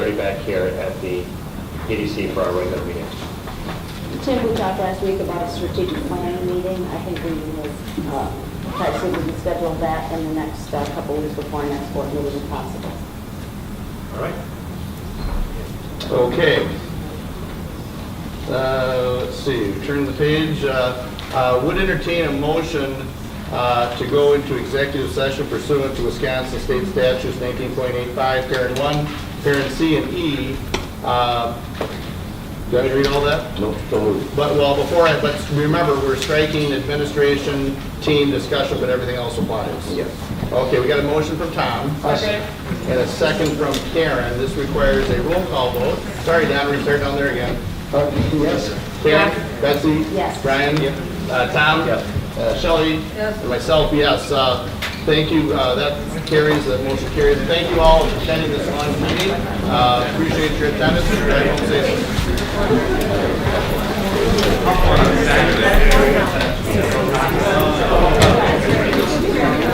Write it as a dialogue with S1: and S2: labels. S1: 30 back here at the EDC for our regular meeting.
S2: Tim, we talked last week about a strategic planning meeting. I think we will uh, try to see if we can schedule that in the next uh, couple weeks before our next board meeting if possible.
S1: All right?
S3: Okay. Uh, Let's see, turn the page. Uh, uh, Would entertain a motion uh, to go into executive session pursuant to Wisconsin State Statutes 19.85, Parent 1, Parent C, and E. Uh, Do I read all that?
S4: No, don't move.
S3: But, well, before I, but remember, we're striking administration, team discussion, but everything else applies.
S4: Yes.
S3: Okay, we got a motion from Tom.
S2: Second.
S3: And a second from Karen. This requires a roll call vote. Sorry, Don, we're starting down there again.
S4: Uh, Yes.
S3: Karen? Betsy?
S2: Yes.
S3: Brian? Uh, Tom?
S1: Yes.
S3: Uh, Shelley?
S2: Yes.
S3: And myself, yes. Uh, Thank you, Uh, that carries, that motion carries. Thank you all for attending this long meeting. Uh, Appreciate your attendance. Drive home safe.